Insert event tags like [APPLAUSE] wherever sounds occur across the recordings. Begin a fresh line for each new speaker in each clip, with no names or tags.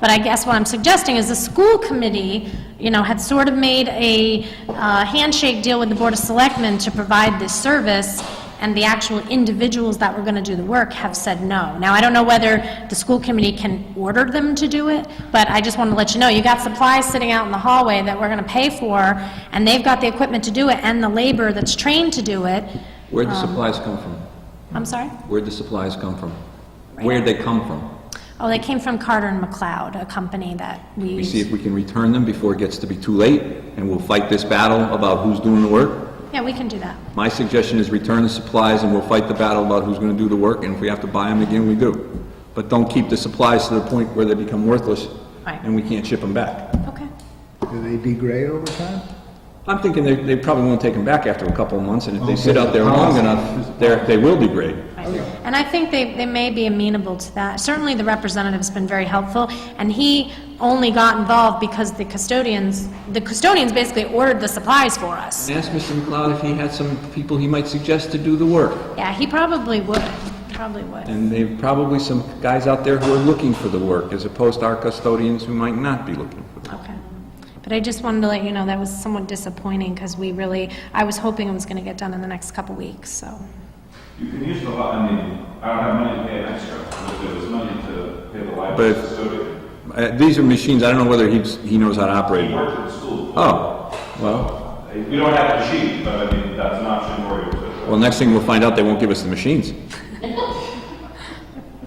But I guess what I'm suggesting is the school committee, you know, had sort of made a uh, handshake deal with the Board of Selectmen to provide this service, and the actual individuals that were going to do the work have said no. Now, I don't know whether the school committee can order them to do it, but I just want to let you know, you got supplies sitting out in the hallway that we're going to pay for, and they've got the equipment to do it and the labor that's trained to do it.
Where'd the supplies come from?
I'm sorry?
Where'd the supplies come from? Where'd they come from?
Oh, they came from Carter and McLeod, a company that we
We
use.
see if we can return them before it gets to be too late, and we'll fight this battle about who's doing the work.
Yeah, we can do that.
My suggestion is return the supplies, and we'll fight the battle about who's gonna do the work, and if we have to buy them again, we do. But don't keep the supplies to the point where they become worthless,
Right.
and we can't ship them back.
Okay.
Do they degrade over time?
I'm thinking they, they probably won't take them back after a couple of months, and if they sit
Okay.
out there long enough, they're, they will degrade.
Right. And I think they, they may be amenable to that. Certainly, the representative's been very helpful, and he only got involved because the custodians, the custodians basically ordered the supplies for us.
Ask Mr. McLeod if he had some people he might suggest to do the work.
Yeah, he probably would, probably would.
And there are probably some guys out there who are looking for the work, as opposed to our custodians who might not be looking for it.
Okay. But I just wanted to let you know, that was somewhat disappointing, because we really, I was hoping it was going to get done in the next couple weeks, so.
You can use the lot, I mean, I don't have money to pay an extra, but there was money to pay the library
But-
custodian.
Uh, These are machines, I don't know whether he's, he knows how to operate
He
them.
worked at the school.
Oh, well,
We don't have a sheet, but I mean, that's an option where you could.
well, next thing we'll find out, they won't give us the machines.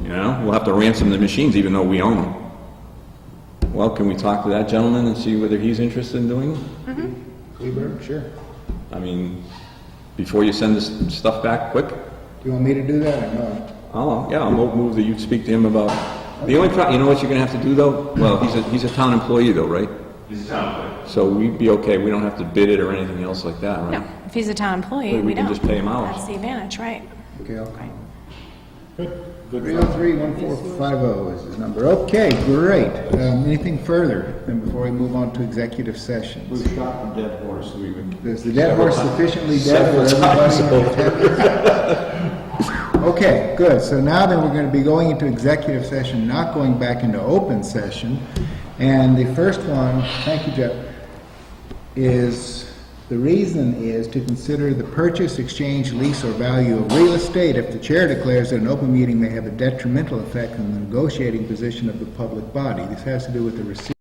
You know, we'll have to ransom the machines even though we own them. Well, can we talk to that gentleman and see whether he's interested in doing it?
Kleberg, sure. Do
I mean, before you send this stuff back, quick?
you want me to do that or not?
Oh, yeah, I'll mo- move that you'd speak to him about, the only pro, you know what you're gonna have to do though? Well, he's a, he's a town employee though, right?
He's a town clerk.
So we'd be okay, we don't have to bid it or anything else like that,
No,
right?
if he's a town employee,
But we
we
can
don't.
just pay him hours.
That's the advantage, right.
Okay, okay. Three oh three one four five oh is his number. Okay, great. Um, anything further than before we move on to executive sessions?
We've shot the dead horse, we've been
Is the dead horse sufficiently
Several
dead for
times
everybody in attendance? [LAUGHS] Okay, good. So now then we're gonna be going into executive session, not going back into open session. And the first one, thank you, Jeff, is, the reason is to consider the purchase, exchange, lease, or value of real estate if the chair declares that an open meeting may have a detrimental effect on the negotiating position of the public body. This has to do with the receipt.